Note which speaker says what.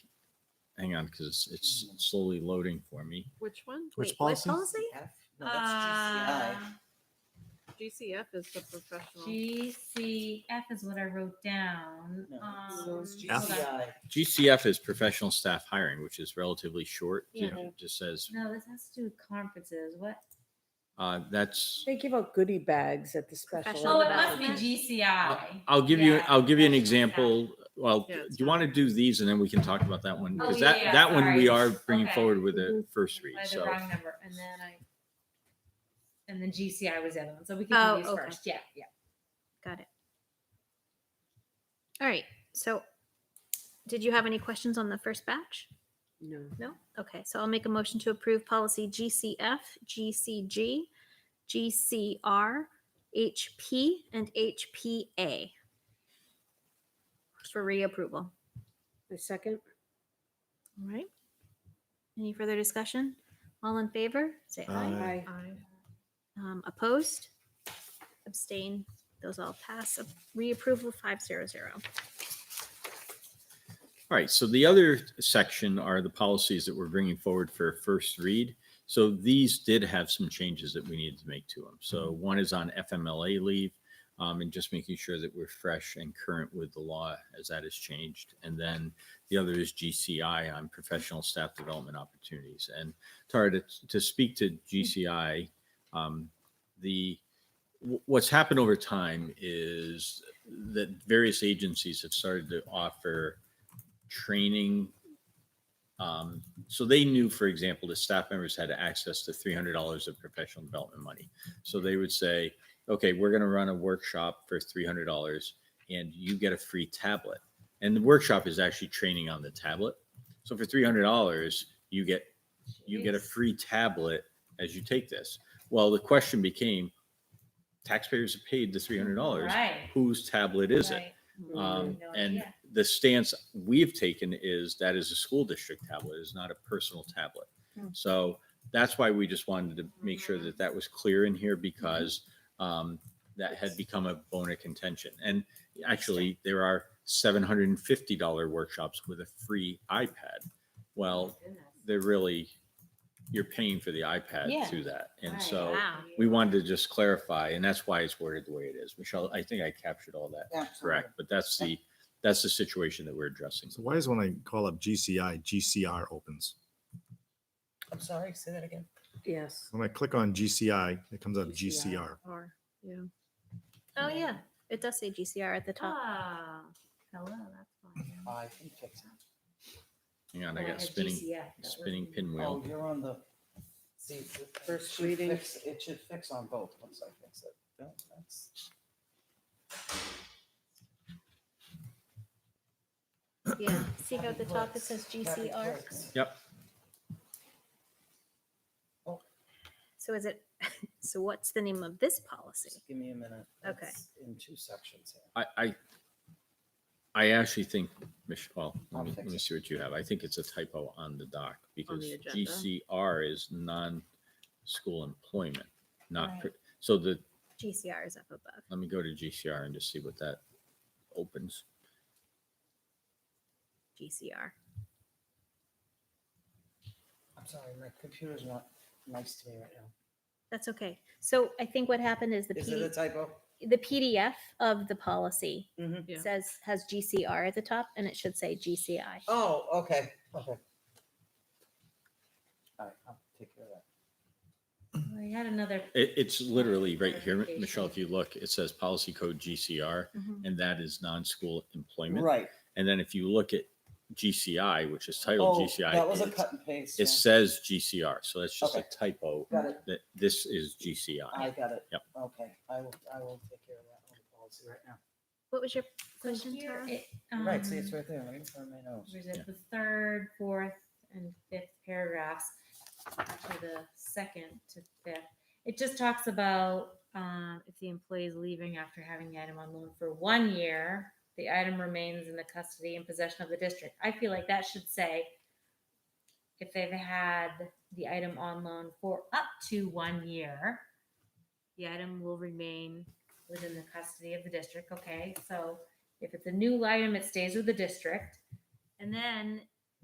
Speaker 1: hang on, because it's slowly loading for me.
Speaker 2: Which one?
Speaker 3: Which
Speaker 4: Wait, what
Speaker 3: policy?
Speaker 4: F? No, that's
Speaker 5: Ah,
Speaker 4: GCI.
Speaker 2: GCF is the professional.
Speaker 5: GCF is what I wrote down.
Speaker 4: No,
Speaker 5: Um,
Speaker 4: it's
Speaker 3: F.
Speaker 5: hold on.
Speaker 4: GCI.
Speaker 1: GCF is professional staff hiring, which is relatively short. You know,
Speaker 2: Yeah.
Speaker 1: It just says,
Speaker 5: No, this has to do with conferences. What?
Speaker 1: uh, that's,
Speaker 6: They give out goodie bags at the special.
Speaker 2: Professional
Speaker 5: Oh, it
Speaker 6: events.
Speaker 5: must
Speaker 2: development.
Speaker 5: be GCI.
Speaker 1: I'll give you,
Speaker 5: Yeah,
Speaker 1: I'll give you an
Speaker 5: professional
Speaker 1: example. Well,
Speaker 2: Yeah,
Speaker 1: do
Speaker 2: it's
Speaker 1: you want to do these and then we can talk about that one?
Speaker 5: Oh,
Speaker 1: Because
Speaker 5: yeah,
Speaker 1: that,
Speaker 5: yeah,
Speaker 1: that one we are
Speaker 5: sorry.
Speaker 1: bringing
Speaker 5: Okay. Mm-hmm.
Speaker 1: forward with a first
Speaker 5: staff.
Speaker 1: read.
Speaker 5: I had the
Speaker 1: So
Speaker 5: wrong number, and then I, and then GCI was the other one, so we can
Speaker 2: Oh,
Speaker 5: do these
Speaker 2: okay.
Speaker 5: first. Yeah, yeah.
Speaker 2: Got it. All right. So, did you have any questions on the first batch?
Speaker 6: No.
Speaker 2: No? Okay. So, I'll make a motion to approve policy GCF, GCG, GCR, HP, and HPA for reapproval.
Speaker 6: A second?
Speaker 2: All right. Any further discussion? All in favor, say aye.
Speaker 3: Aye.
Speaker 2: Aye. Um, opposed? Abstain? Those all pass. A- Reapproval five zero zero.
Speaker 1: All right, so the other section are the policies that we're bringing forward for first read. So these did have some changes that we needed to make to them. So one is on FMLA leave um, and just making sure that we're fresh and current with the law as that has changed. And then the other is GCI on professional staff development opportunities. And Tara, to, to speak to GCI, um, the wh- what's happened over time is that various agencies have started to offer training. Um, so they knew, for example, that staff members had access to three hundred dollars of professional development money. So they would say, "Okay, we're going to run a workshop for three hundred dollars, and you get a free tablet." And the workshop is actually training on the tablet. So for three hundred dollars, you get you get a
Speaker 5: Jeez.
Speaker 1: free tablet as you take this. Well, the question became, taxpayers have paid the three hundred dollars.
Speaker 5: Right.
Speaker 1: Whose tablet is it?
Speaker 5: right.
Speaker 1: Um,
Speaker 5: Mm-hmm. No
Speaker 1: and
Speaker 5: idea.
Speaker 1: the stance we've taken is that is a school district tablet, is not a personal tablet.
Speaker 6: Hmm.
Speaker 1: So that's why we just wanted to make sure that that was clear in
Speaker 5: Mm-hmm.
Speaker 1: here because um, that had become a bone of contention. And actually, there are seven hundred and fifty dollar workshops with a free iPad. Well,
Speaker 5: Goodness.
Speaker 1: they're really, you're paying for the
Speaker 5: Yeah.
Speaker 1: iPad through that. And
Speaker 5: Right.
Speaker 1: so
Speaker 2: Wow.
Speaker 1: we wanted to just clarify, and that's why it's worded the way it is. Michelle, I think I captured all that correct but that's the that's the situation that we're addressing
Speaker 3: So why is when I call up GCI, GCR opens?
Speaker 4: I'm sorry, say that again.
Speaker 6: Yes.
Speaker 3: When I click on GCI, it comes up
Speaker 6: GCI.
Speaker 3: GCR.
Speaker 2: Or, yeah. Oh, yeah. It does say GCR at the top.
Speaker 5: Ah, hello, that's fine.
Speaker 4: I think that's.
Speaker 1: hang on i
Speaker 5: Oh,
Speaker 1: got
Speaker 5: had
Speaker 1: spinning
Speaker 5: GCF, that was
Speaker 1: spinning
Speaker 5: me.
Speaker 4: Oh,
Speaker 1: pinwheel
Speaker 4: you're on the. see, it should
Speaker 6: First reading.
Speaker 4: fix- It should fix on both, once I fix it. No, that's-
Speaker 2: Yeah. See how at the top it
Speaker 4: works.
Speaker 2: says
Speaker 4: Happy
Speaker 2: GCR?
Speaker 4: works.
Speaker 1: yep
Speaker 2: So is it, so what's the name of this policy?
Speaker 4: Just Give me a minute.
Speaker 2: Okay.
Speaker 4: It's In two sections here.
Speaker 1: i i i actually think michelle
Speaker 4: I'll
Speaker 1: let me,
Speaker 4: fix
Speaker 1: let me
Speaker 4: it.
Speaker 1: see what you have i think it's a typo on the doc because
Speaker 2: the agenda.
Speaker 1: gcr is non-school employment not
Speaker 5: Right.
Speaker 1: per- so the
Speaker 2: GCR is up above.
Speaker 1: let me go to gcr and just see what that opens
Speaker 2: GCR.
Speaker 4: I'm sorry, my computer's not nice to me right now.
Speaker 2: That's okay. So I think what happened is the
Speaker 4: Is it a
Speaker 2: P,
Speaker 4: typo?
Speaker 2: the PDF of the policy
Speaker 4: Mhm.
Speaker 2: It says has GCR at the top and it should say GCI.
Speaker 4: Oh, okay, okay. All right, I'll take care of that.
Speaker 5: Oh, I had another.
Speaker 1: it, it's literally right here
Speaker 5: Clarification.
Speaker 1: michelle if you look it says policy code gcr and that is non-school employment
Speaker 4: Right.
Speaker 1: And then if you look at GCI, which is titled
Speaker 4: Oh,
Speaker 1: GCI,
Speaker 4: That was a
Speaker 1: it's-
Speaker 4: cut and paste.
Speaker 1: it
Speaker 4: yeah.
Speaker 1: says GCR. So that's just
Speaker 4: Okay.
Speaker 1: a typo
Speaker 4: Got it.
Speaker 1: that this is GCI.
Speaker 4: I got it.
Speaker 1: Yep.
Speaker 4: Okay, I will, I will take care of that on the policy right now.
Speaker 2: What was your
Speaker 5: So
Speaker 2: question,
Speaker 5: here
Speaker 2: Tara?
Speaker 5: it,
Speaker 4: Right, see, it's
Speaker 5: um,
Speaker 4: right there, right in front of my nose.
Speaker 5: There's the third, fourth, and fifth paragraphs, actually the second to fifth. It just talks about um, if the employee is leaving after having the item on loan for one year, the item remains in the custody and possession of the district. I feel like that should say if they've had the item on loan for up to one year, the item will remain within the custody of the district. Okay, so if it's a new item, it stays with the district. And then